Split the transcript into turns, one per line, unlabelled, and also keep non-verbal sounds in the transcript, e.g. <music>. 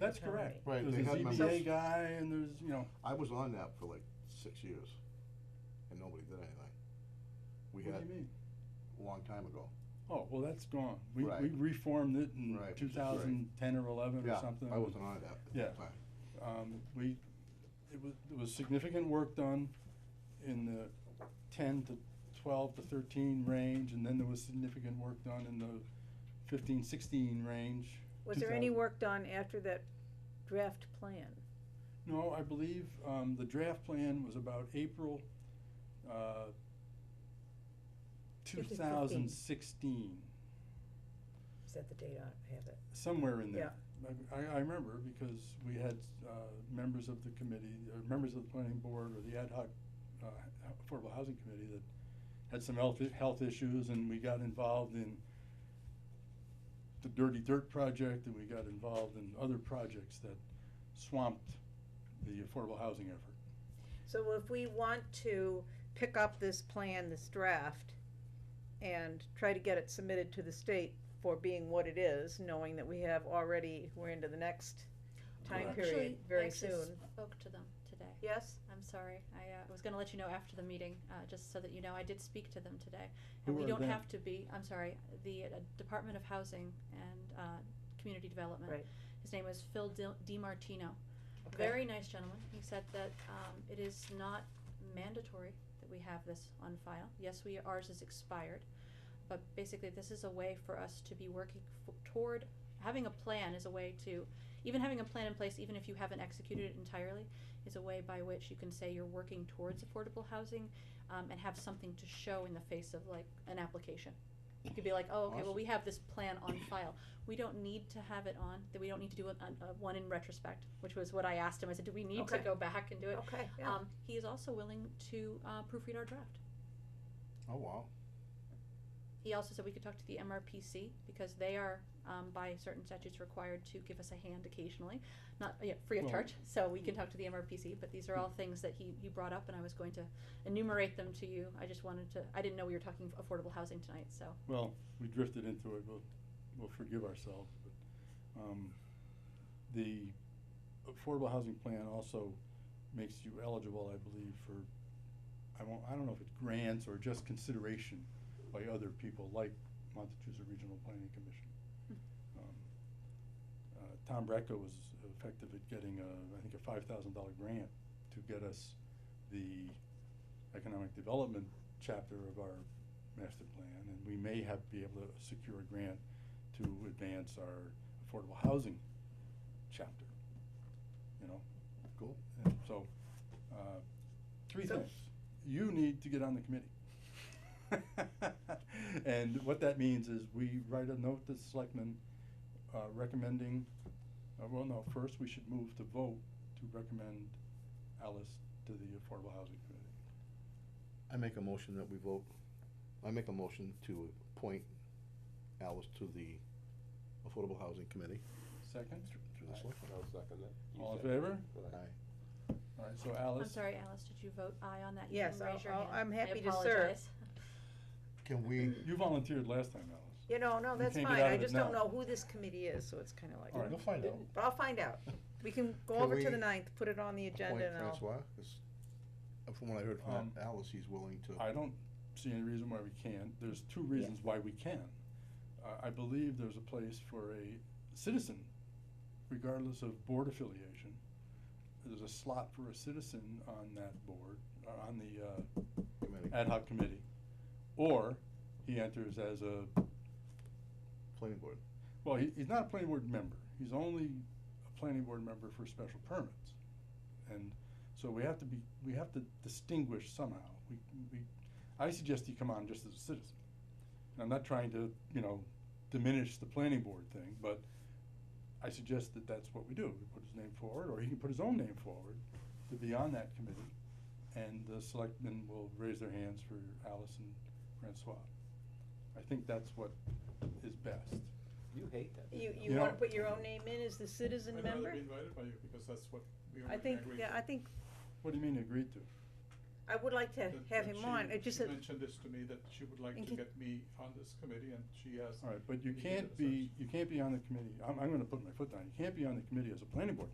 That's
fraternity.
correct.
Right,
There's
they
a
had
ZBA
members.
guy and there's, you know,
I was on that for like six years, and nobody did anything. We
what do you
had,
mean?
a long time ago,
Oh, well, that's gone. We,
Right.
we reformed it in
Right, which
two
is great.
thoush ten or eleven or
yeah,
something.
I wasn't on that at
Yeah.
that time.
Um, we, it was, there was significant work done in the ten to twelve to thirteen range, and then there was significant work done in the fifteen, sixteen range.
Was there any
2000.
work done after that draft plan?
No, I believe, um, the draft plan was about April, uh, two thousand sixteen,
Is that the date I have it?
somewhere in there. I, I- I remember because we had, uh, members of the committee, or members of the planning board or the ad hoc, uh, affordable housing committee that had some health, i- health issues and we got involved in the Dirty Dirt project and we got involved in other projects that swamped the affordable housing effort.
So if we want to pick up this plan, this draft, and try to get it submitted to the state for being what it is, knowing that we have already, we're into the next time
Correct.
period very
actually
soon.
spoke to them today.
Yes,
I'm sorry. I uh, was going to let you know after the meeting, uh, just so that you know. I did speak to them today, and
Who
we
are
don't
they?
have to be. I'm sorry. The uh, Department of Housing and uh, Community Development.
Right.
His name is Phil Dil- DiMartino.
Okay.
Very nice gentleman. He said that um, it is not mandatory that we have this on file. Yes, we ours is expired, but basically this is a way for us to be working f- toward having a plan is a way to even having a plan in place even if you haven't executed it entirely is a way by which you can say you're working towards affordable housing um, and have something to show in the face of like an application. You could be like, oh, okay, well, we have this plan on file. We don't need to have it on, that we don't need to do it on, uh, one in retrospect, which was what I asked him. I said, do we need to
Okay.
go back and do it?
okay, yeah.
Um, he is also willing to uh, proofread our draft.
Oh, wow.
He also said we could talk to the MRPC because they are, um, by certain statutes, required to give us a hand occasionally, not yeah, free of
Well- mm.
charge. So we can talk to the MRPC, but these are all things that he, he brought up, and I was going to enumerate them to you. I just wanted to, I didn't know we were talking affordable housing tonight, so.
Well, we drifted into it, we'll, we'll forgive ourselves, but, um, the affordable housing plan also makes you eligible, I believe, for, I won't, I don't know if it's grants or just consideration by other people like Montezuma Regional Planning Commission. Um, Uh, Tom Brecka was effective at getting a, I think a five thousand dollar grant to get us the economic development chapter of our master plan, and we may have, be able to secure a grant to advance our affordable housing chapter, you know?
Cool.
And so, uh, three
So-
things. You need to get on the committee. <laughs> And what that means is we write a note to the selectmen, uh, recommending, uh, well, no, first we should move to vote to recommend Alice to the Affordable Housing Committee.
I make a motion that we vote, I make a motion to appoint Alice to the Affordable Housing Committee.
Second?
Through the selectmen.
I'll second that. You
All in
second.
favor?
Aye.
Aye.
All right, so Alice.
I'm sorry, Alice, did you vote aye on that? You
Yes,
can
I'll-
raise your
I'll-
hand.
I'm
I
happy to serve.
apologize.
Can we,
You volunteered last time, Alice.
You know, no,
you
that's
can't get
fine,
out
I
of it
just don't
now.
know who this committee is, so it's kinda like,
All right.
we'll find out.
but I'll find out. We can go
Can
over to the
we
ninth, put it on the agenda
Appoint
and I'll,
Francois, 'Cause, uh, from what I heard from
Um,
Alice, he's willing to.
I don't see any reason why we can't. There's two reasons why we can. I, I believe there's a place for a citizen, regardless of board affiliation. There's a slot for a citizen on that board, uh, on the, uh,
Committee.
ad hoc committee. Or he enters as a,
Planning board.
well, he, he's not a planning board member. He's only a planning board member for special permits. And so we have to be, we have to distinguish somehow. We, we, I suggest he come on just as a citizen. And I'm not trying to, you know, diminish the planning board thing, but I suggest that that's what we do. We put his name forward, or he can put his own name forward to be on that committee. And the selectmen will raise their hands for Alice and Francois. I think that's what is best.
You hate that.
you,
don't you?
you
know-
wanna put your own name in as the citizen member?
I'd rather be invited by you because that's what we
I
already
think,
agreed
yeah,
to.
I think,
What do you mean agreed to?
I would like to
that-
have him
that she-
on, it just,
She
that-
mentioned this to me, that she would like
And
to
he-
get me on this committee, and she has
All right, but you
He did
can't
it, so-
be, you can't be on the committee, I'm, I'm gonna put my foot down, you can't be on the committee as a planning board